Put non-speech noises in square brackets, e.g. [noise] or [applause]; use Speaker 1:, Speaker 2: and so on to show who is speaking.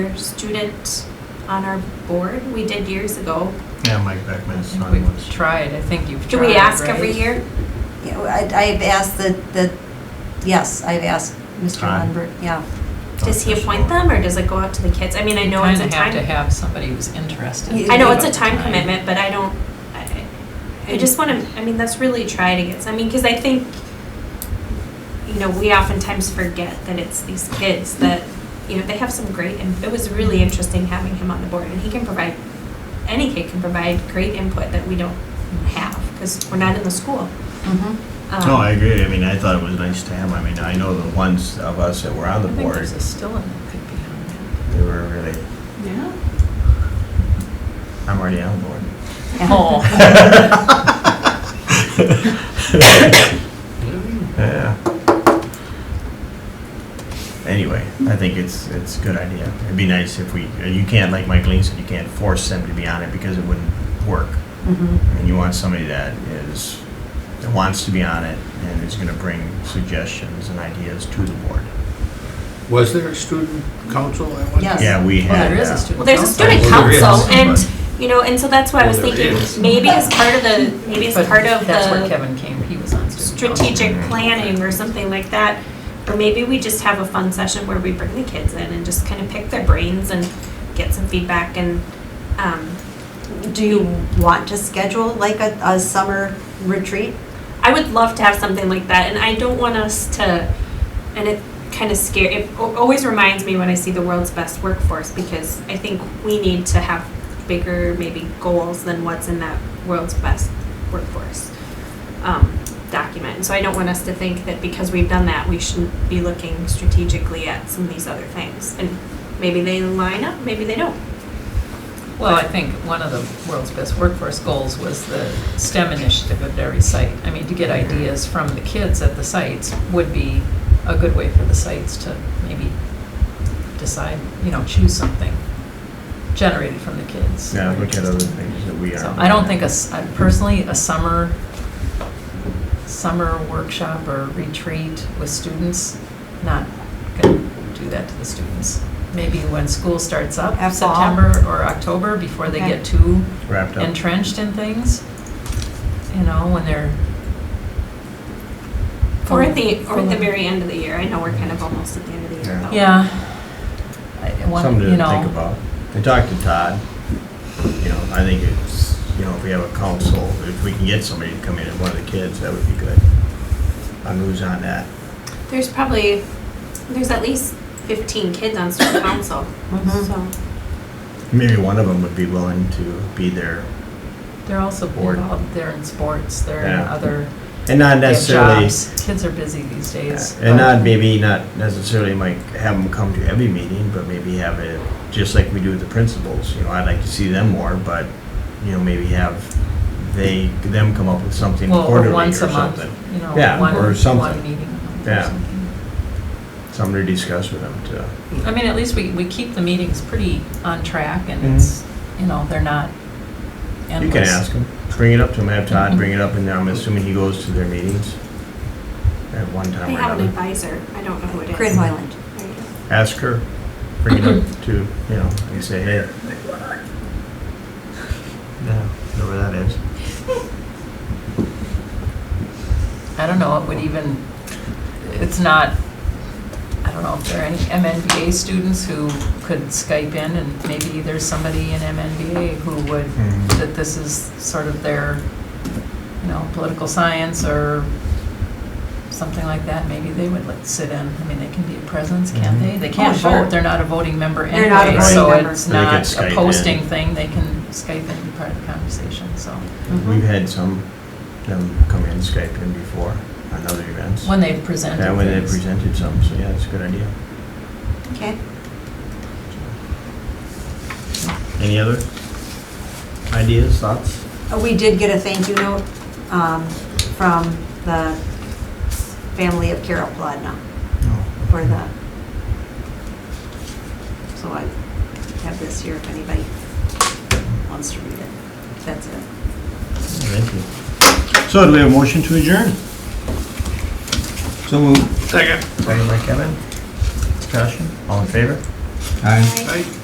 Speaker 1: student on our board. We did years ago.
Speaker 2: Yeah, Mike Beckman's son
Speaker 3: We've
Speaker 2: was.
Speaker 3: tried, I think you've
Speaker 1: Do
Speaker 3: tried,
Speaker 1: we ask every
Speaker 3: right?
Speaker 1: year?
Speaker 4: Yeah, well, I- I've asked the, the, yes, I've asked Mr.
Speaker 2: Time.
Speaker 4: Lundberg, yeah.
Speaker 1: Does he appoint them or does it go out to the kids? I mean, I
Speaker 3: You
Speaker 1: know it's a
Speaker 3: kind of have
Speaker 1: time,
Speaker 3: to have somebody who's interested.
Speaker 1: I know it's a
Speaker 3: Give
Speaker 1: time
Speaker 3: it
Speaker 1: commitment, but I don't, I, I just want to, I mean, that's really try to get, I mean, because I think, you know, we oftentimes forget that it's these kids that, you know, they have some great, and it was really interesting having him on the board and he can provide, any kid can provide great input that we don't have because we're not in the school.
Speaker 4: Mhm.
Speaker 3: uh,
Speaker 1: Um,
Speaker 2: No, I agree. I mean, I thought it was nice to have. I mean, I know the ones of us that were on
Speaker 3: I
Speaker 2: the
Speaker 3: think
Speaker 2: board,
Speaker 3: there's a still in that could be on there.
Speaker 2: they were really,
Speaker 3: Yeah.
Speaker 2: I'm already on board.
Speaker 4: Yeah. [laughs]
Speaker 3: Oh,
Speaker 2: Yeah. Anyway, I think it's, it's a good idea. It'd be nice if we, you can't, like Mike Lean said, you can't force them to be on it because it wouldn't work.
Speaker 4: Mhm.
Speaker 2: And you want somebody that is, that wants to be on it and is gonna bring suggestions and ideas to the board.
Speaker 5: Was there a student council at one time?
Speaker 4: Yes.
Speaker 2: Yeah, we
Speaker 3: well,
Speaker 2: had.
Speaker 3: there is
Speaker 2: uh,
Speaker 3: a
Speaker 1: Well,
Speaker 3: student.
Speaker 1: there's a
Speaker 3: council.
Speaker 1: student
Speaker 5: Well, there
Speaker 1: council,
Speaker 5: is,
Speaker 1: and, you know, and so that's why I was
Speaker 5: Well, there
Speaker 1: thinking,
Speaker 5: is.
Speaker 1: maybe as part of the, maybe as
Speaker 3: But
Speaker 1: part of
Speaker 3: That's where
Speaker 1: the
Speaker 3: Kevin came, he was on student council.
Speaker 1: strategic planning or something like that. Or maybe we just have a fun session where we bring the kids in and just kind of pick their brains and get some feedback and, um,
Speaker 4: Do you want to Uh, schedule like a, a summer retreat?
Speaker 1: I would love to have something like that, and I don't want us to. And it kind of scare. It al- always reminds me when I see the world's best workforce because I think we need to have bigger maybe goals than what's in that world's best workforce um, document. And so I don't want us to think that because we've done that, we shouldn't be looking strategically at some of these other things. And maybe they line up, maybe they don't.
Speaker 3: Well, I think one of the world's best workforce goals was the STEM initiative at every site. I mean, to get ideas from the kids at the sites would be a good way for the sites to maybe decide, you know, choose something generated from the kids.
Speaker 2: Yeah, look at other things that we are.
Speaker 3: So I don't think a s- I- personally, a summer, summer workshop or retreat with students, not gonna do that to the students. Maybe when school starts up,
Speaker 4: At fall.
Speaker 3: September or October, before they
Speaker 4: Okay.
Speaker 3: get too
Speaker 2: Wrapped up.
Speaker 3: entrenched in things, you know, when they're.
Speaker 1: Or at the or at the
Speaker 3: Full-
Speaker 1: very end of the year. I know we're kind of almost at the end of the year.
Speaker 2: Yeah.
Speaker 1: though.
Speaker 3: Yeah. I- one-
Speaker 2: Something
Speaker 3: you
Speaker 2: to
Speaker 3: know,
Speaker 2: think about. I talked to Todd, you know, I think it's, you know, if we have a council, if we can get somebody to come in and one of the kids, that would be good. On who's on that.
Speaker 1: There's probably, there's at least 15 kids on student council,
Speaker 4: Mhm.
Speaker 1: so.
Speaker 2: Maybe one of them would be willing to be there.
Speaker 3: They're also
Speaker 2: Board.
Speaker 3: involved, they're in sports, they're in
Speaker 2: Yeah.
Speaker 3: other.
Speaker 2: And not
Speaker 3: They have
Speaker 2: necessarily,
Speaker 3: jobs. Kids are busy these days.
Speaker 2: and
Speaker 3: but-
Speaker 2: not, maybe not necessarily like have them come to every meeting, but maybe have it, just like we do with the principals, you know, I'd like to see them more, but, you know, maybe have they, them come up with something
Speaker 3: Well, or
Speaker 2: quarterly or
Speaker 3: once a month,
Speaker 2: something.
Speaker 3: You know,
Speaker 2: Yeah,
Speaker 3: one,
Speaker 2: or
Speaker 3: one
Speaker 2: something.
Speaker 3: meeting. a month or
Speaker 2: Yeah.
Speaker 3: something.
Speaker 2: Something to discuss with them too.
Speaker 3: I mean, at least we, we keep the meetings pretty on track and
Speaker 2: Mhm.
Speaker 3: it's, you know, they're not endless.
Speaker 2: You can ask him, bring it up to him, have
Speaker 3: Mm-hmm.
Speaker 2: Todd bring it up, and I'm assuming he goes to their meetings at one
Speaker 1: They
Speaker 2: time or
Speaker 1: have an
Speaker 2: another.
Speaker 1: advisor, I don't know who it is.
Speaker 4: Grid Highland.
Speaker 1: There you go.
Speaker 2: Ask her, bring it
Speaker 3: [laughs]
Speaker 2: up to, you know, and say, hey. Yeah, know where that is.
Speaker 3: I don't know, it would even, it's not, I don't know if there are any MNBA students who could Skype in and maybe there's somebody in MNBA who would,
Speaker 2: Mhm.
Speaker 3: that this is sort of their, you know, political science or something like that, maybe they would like sit in. I mean, they can be a presence, can't
Speaker 2: Mm-hmm.
Speaker 3: they? They can't
Speaker 4: Oh, sure.
Speaker 3: vote, they're not a voting member
Speaker 4: They're not a
Speaker 3: anyway,
Speaker 2: voting
Speaker 3: so
Speaker 4: member.
Speaker 3: it's
Speaker 2: But they can
Speaker 3: not
Speaker 2: Skype
Speaker 3: a
Speaker 2: in.
Speaker 3: posting thing, they can Skype in and be part of the conversation, so.
Speaker 2: We've had some, them come in, Skype in before, on other events.
Speaker 3: When they've presented
Speaker 2: Yeah, when they
Speaker 3: things.
Speaker 2: presented some, so yeah, it's a good idea.
Speaker 4: Okay.
Speaker 2: Any other ideas, thoughts?
Speaker 4: Uh, We did get a thank you note, um, from the family of Carol Plodna for the, so I have this here if anybody wants to read it. That's it.
Speaker 2: Thank you. So do we have a motion to adjourn? So moved. Second. Second by Kevin. Discussion, all in favor?
Speaker 6: Aye.
Speaker 5: Aye.